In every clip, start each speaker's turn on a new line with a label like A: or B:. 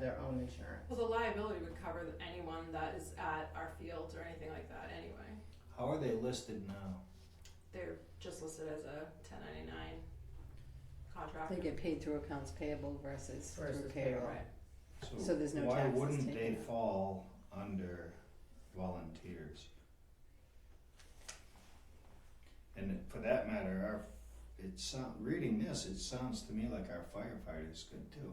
A: their own insurance.
B: Well, the liability would cover anyone that is at our fields or anything like that anyway.
C: How are they listed now?
B: They're just listed as a ten ninety nine contract.
D: They get paid through accounts payable versus through
A: Versus
D: payroll.
A: payroll.
B: Right.
D: So there's no
C: Why
D: taxes
C: wouldn't they
D: taken out.
C: fall under volunteers? And for that matter, our, it sound, reading this, it sounds to me like our firefighters could too.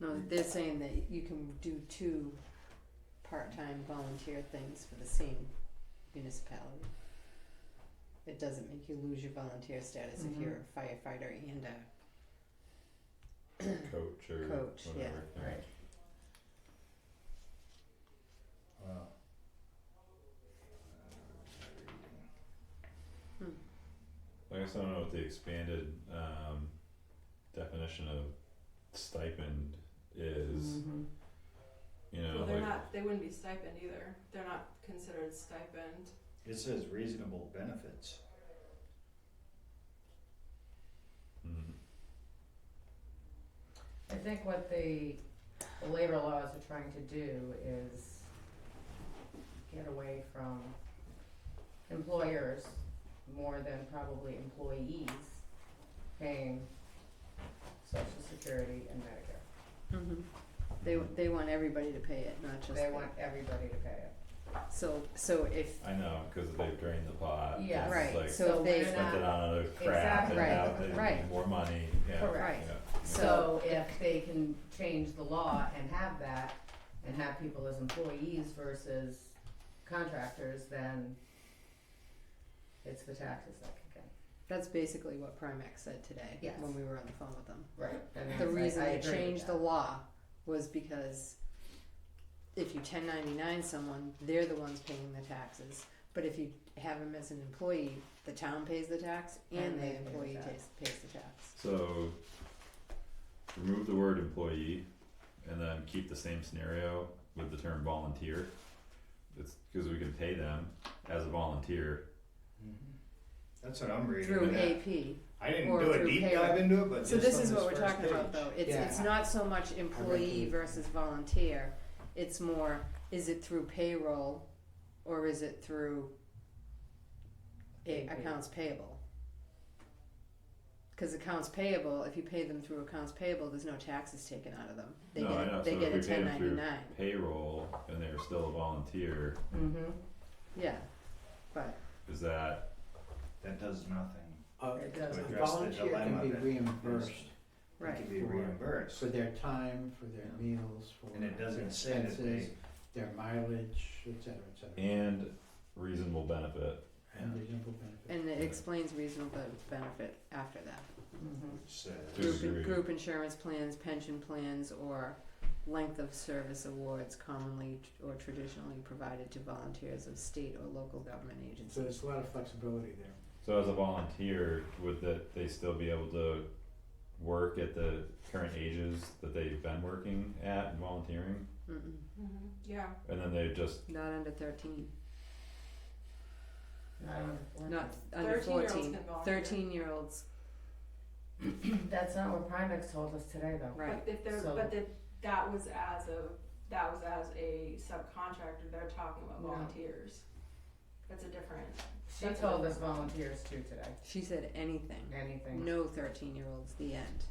D: No, they're saying that you can do two part-time volunteer things for the same municipality. It doesn't make you lose your volunteer status if
A: Mhm.
D: you're a firefighter and a,
E: coach or
D: Coach, yeah,
E: whatever.
A: right.
C: Wow.
E: I guess I don't know what the expanded um, definition of stipend is.
D: Mm-hmm.
E: You know,
B: Well, they're
E: like
B: not. They wouldn't be stipend either. They're not considered stipend.
C: It says reasonable benefits.
E: mm,
A: I think what the, the labor laws are trying to do is get away from employers more than probably employees paying social security and Medicare.
D: hmm They, they want everybody to pay it, not just
A: They
D: the-
A: want everybody to pay it.
D: So, so if,
E: I know because they've drained the pot.
A: Yeah.
E: it's
D: Right,
E: Like
D: So if they-
A: we're
E: spent it
A: not-
E: on other crap
A: Exactly.
E: and now they
D: Right, right.
E: need more money. Yeah.
A: Correct.
E: Yeah.
A: So if they can change the law and have that, and have people as employees versus contractors, then it's the taxes that kick
D: that's basically what Primex said today,
A: Yes.
D: when we were on the phone with them.
A: in. Right. And it's
D: The
A: like,
D: reason
A: I
D: they
A: agree with
D: changed
A: that.
D: the law was because if you ten ninety nine someone, they're the ones paying the taxes. But if you have them as an employee, the town pays the tax and
A: And they
D: the
A: pay the
D: employee
A: tax.
D: pays, pays the tax.
E: So remove the word employee and then keep the same scenario with the term volunteer. It's because we can pay them as a volunteer.
C: That's what I'm reading.
D: Mm-hmm. Through
C: Yeah.
D: AP.
C: I didn't
D: or
C: do a
D: through
C: deep
D: payroll.
C: dive into it, but
D: So
C: just
D: this
C: on
D: is what we're
C: first
D: talking
C: page.
D: about though, it's,
C: Yeah.
D: it's not so much employee
C: the-
D: versus volunteer, it's more, is it through payroll or is it through a-
A: AP.
D: accounts payable? Cause accounts payable, if you pay them through accounts payable, there's no taxes taken out of them, they
E: No, I know.
D: get, they
E: So
D: get a
E: if we pay
D: ten
E: them
D: ninety
E: through-
D: nine,
E: Payroll and they're still a volunteer.
A: Mhm.
D: yeah, but,
E: Is that
C: That does nothing.
F: A
A: It does.
C: Uh,
A: Mm-hmm.
C: To
F: a
C: address the
F: volunteer
C: dilemma
F: can be
C: that
F: reimbursed
C: is- They
D: right,
C: can be
F: For-
C: reimbursed.
F: for their time, for their
C: Yeah.
F: meals, for
C: And it
F: their
C: doesn't say that they,
F: expenses, their mileage, et cetera, et cetera.
E: and reasonable benefit.
F: And reasonable benefits.
D: and it explains reasonable benefit after that. Mm-hmm.
A: Mhm.
E: Just-
C: says,
E: Disagree.
D: Group, group insurance plans, pension plans, or length of service awards commonly t- or traditionally provided to volunteers of state or local government
F: So
D: agencies.
F: there's a lot of flexibility there.
E: So as a volunteer, would that they still be able to work at the current ages that they've been working at and volunteering?
D: Mm-mm,
B: Mm-hmm. Yeah.
E: And then they just
D: not under thirteen,
A: Not on the
D: not
A: fourth.
D: under
B: 13-year-olds
D: fourteen,
B: can volunteer.
D: thirteen-year-olds,
A: That's not what Primex told us today, though.
D: right,
B: But if they're,
A: So-
B: but that that was as a that was as a subcontractor. They're talking about
A: No.
B: volunteers. That's a different.
A: She told us volunteers too today,
D: she said anything,
A: anything.
D: no thirteen-year-olds, the end.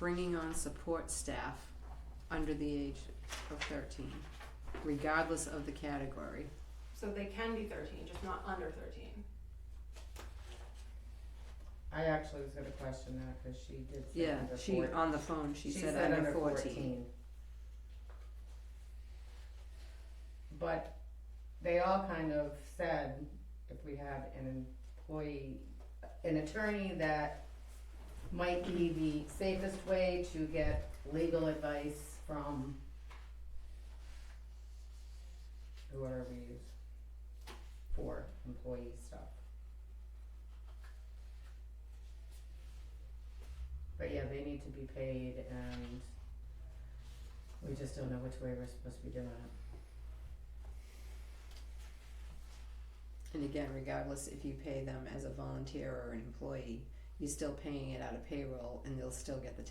D: Bringing on support staff under the age of thirteen, regardless of the category.
B: So they can be thirteen, just not under thirteen.
A: I actually was gonna question that, cause she did say
D: Yeah,
A: under
D: she
A: four-
D: on the phone. She,
A: She
D: said,
A: said
D: under 14.
A: But they all kind of said, if we have an employee, an attorney that might be the safest way to get legal advice from whoever we use for employee stuff. But yeah, they need to be paid and we just don't know which way we're supposed to be doing it.
D: And again, regardless if you pay them as a volunteer or an employee, you're still paying it out of payroll, and they'll still get the